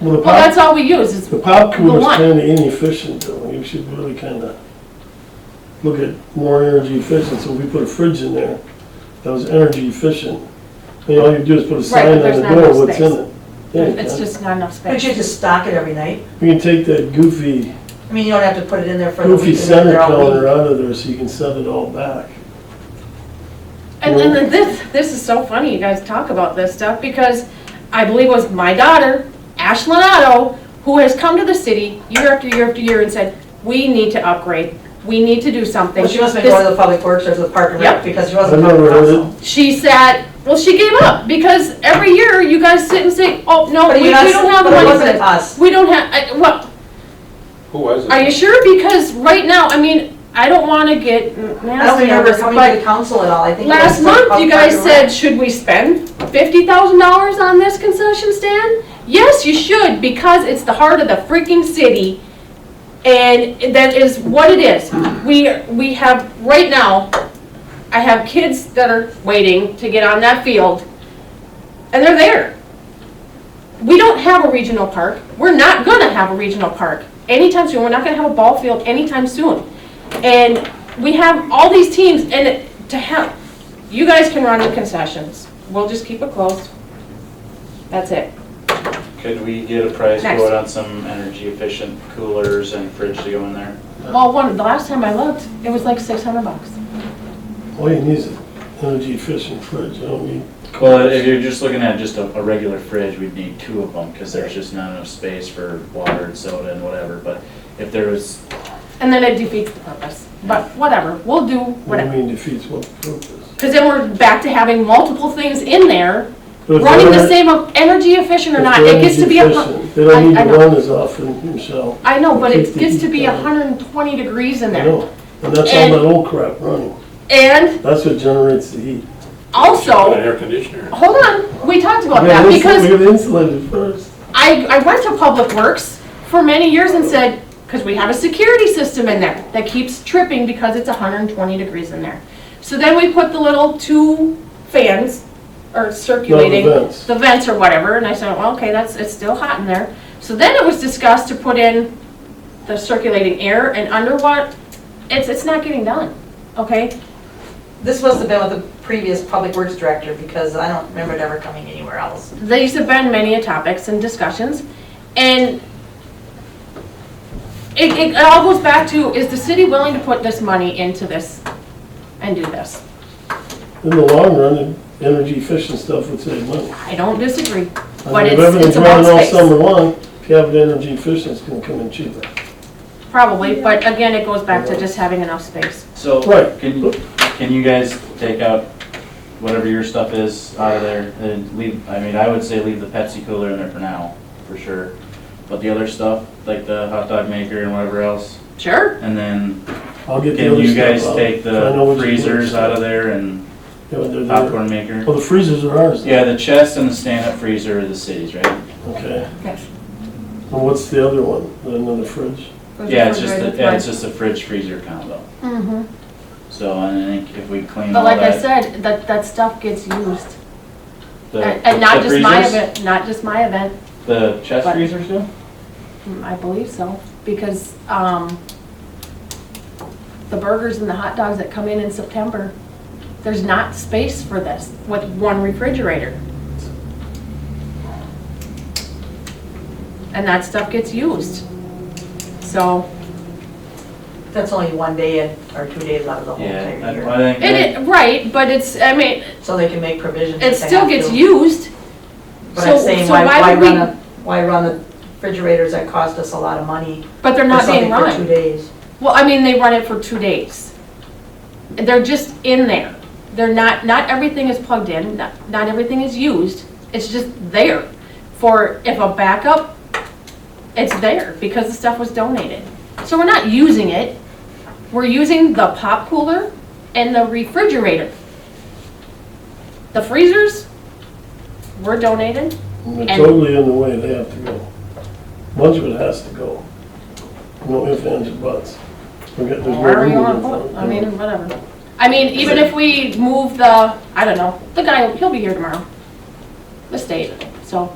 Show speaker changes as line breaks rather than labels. Well, the
Well, that's
pop,
all we use, is
the
the
popcorn is
one.
kinda inefficient, though, you should really kinda look at more energy efficient, so if we put a fridge in there, that was energy efficient. And all you do is put a
but
sign on
there's
the
not enough
door, what's in
space.
it. Yeah, you
It's
can.
just not enough
But
space.
you just stock it every night.
We can take that goofy,
I mean, you don't have to put it in there for the week.
goofy
and then
center
they're all
counter
week.
out of there, so you can set it all back.
And then this, this is so funny, you guys talk about this stuff, because I believe it was my daughter, Ashlyn Otto, who has come to the city year after year after year and said, we need to upgrade, we need to do something.
Well, she must have been
This-
going to the public works or the park and
Yep.
rec because she
I
wasn't.
never heard it.
She said, well, she gave up, because every year you guys sit and say, oh, no,
But
we,
you're
we
not-
don't have the
but it
money for
wasn't
this.
us.
We don't have, I, well,
Who was it?
Are you sure? Because right now, I mean, I don't wanna get
I don't
nasty on
remember
this,
coming to the
but
council at all, I think. it
last
was
month
up
you
front
guys
and
said,
around.
should we spend fifty thousand dollars on this concession stand? Yes, you should, because it's the heart of the freaking city, and that is what it is. We, we have, right now, I have kids that are waiting to get on that field, and they're there. We don't have a regional park. We're not gonna have a regional park anytime soon. We're not gonna have a ball field anytime soon. And we have all these teams, and it- to have, you guys can run the concessions. We'll just keep it closed. That's it.
Could we get a price
Next.
quote on some energy efficient coolers and fridge to go in there?
Well, one, the last time I looked, it was like six hundred bucks.
All you need is an energy efficient fridge, you don't need,
Well, if you're just looking at just a, a regular fridge, we'd need two of them, cause there's just not enough space for water and soda and whatever, but if there was,
And then it defeats the purpose. But whatever, we'll do
what do you
whatever.
mean defeats what purpose?
Because then we're back to having multiple things in there,
But if
running
they're-
the same of energy efficient or
if
not.
they're
It gets to be a.
energy
hu-
efficient, They don't need
I- I
to
know.
run as often, Michelle.
I know, but it
Keep the
gets
heat
to be
down.
hundred and twenty degrees in
I
there.
know, and that's all
And-
that old crap running.
And
That's what generates the heat.
Put an
also,
air conditioner.
hold on, we talked about
We
that
gotta
because
insulate- We gotta insulate it first.
I, I went to Public Works for many years and said, because we have a security system in there that keeps tripping because it's hundred and twenty degrees in there. So then we put the little two fans, or circulating.
vents.
The vents or whatever, and I said, well, okay, that's, it's still hot in there. So then it was discussed to put in the circulating air and underwater, it's, it's not getting done, okay?
This must have been with the previous public works director because I don't remember it ever coming anywhere else.
These have been many a topics and discussions, and it, it all goes back to, is the city willing to put this money into this and do this?
In the long run, the energy efficient stuff would save money.
I don't disagree,
I
but
mean, if
it's, it's
everything's
about
running all
space,
Summer long, if you have it energy efficient, it's gonna come in cheaper.
probably, but again, it goes back to just having enough space.
so,
Right.
can, can you guys take out whatever your stuff is out of there and leave, I mean, I would say leave the Pepsi cooler in there for now, for sure. But the other stuff, like the hot dog maker and whatever else,
Sure,
and then
I'll get the
can
other
you
stuff
guys
out.
take
I know
the
what you
freezers
mean.
out of there and
Yeah, they're there.
popcorn maker?
Oh, the freezers are ours. then.
Yeah, the chest and the stand-up freezer are the city's, right?
Okay.
Yes.
And what's the other one? Another fridge?
Yeah, it's just, a- yeah, it's just a fridge freezer combo.
Mhm.
So, and I think if we clean
But
all
like I
that.
said, that, that stuff gets used,
the-
and and not
the
just my
freezers,
event, not just my event,
The chest
But-
freezer still?
Mm, I believe so, because, um, the burgers and the hot dogs that come in in September, there's not space for this with one refrigerator. And that stuff gets used. So,
That's only one day and or two days out of the whole
Yeah,
entire
I-
year.
I think,
it, it, right, but it's, I mean,
So they can make provisions.
it
if they
still
have
gets
to.
used.
But I'm
So-
saying,
so
why,
why
why
would we-
run a, why run the refrigerators that cost us a lot of money
But they're
for
not being
something for two
run.
days?
Well, I mean, they run it for two days. They're just in there. They're not, not everything is plugged in, not, not everything is used. It's just there for, if a backup, it's there because the stuff was donated. So we're not using it. We're using the pop cooler and the refrigerator. The freezers were donated.
And they're
And-
totally in the way, they have to go. Much of it has to go. No ifs, ands, or buts. We got- there's no
Wherever you
room
wanna
for
put it.
it.
I mean, whatever. I mean, even if we move the, I don't know, the guy, he'll be here tomorrow. The state, so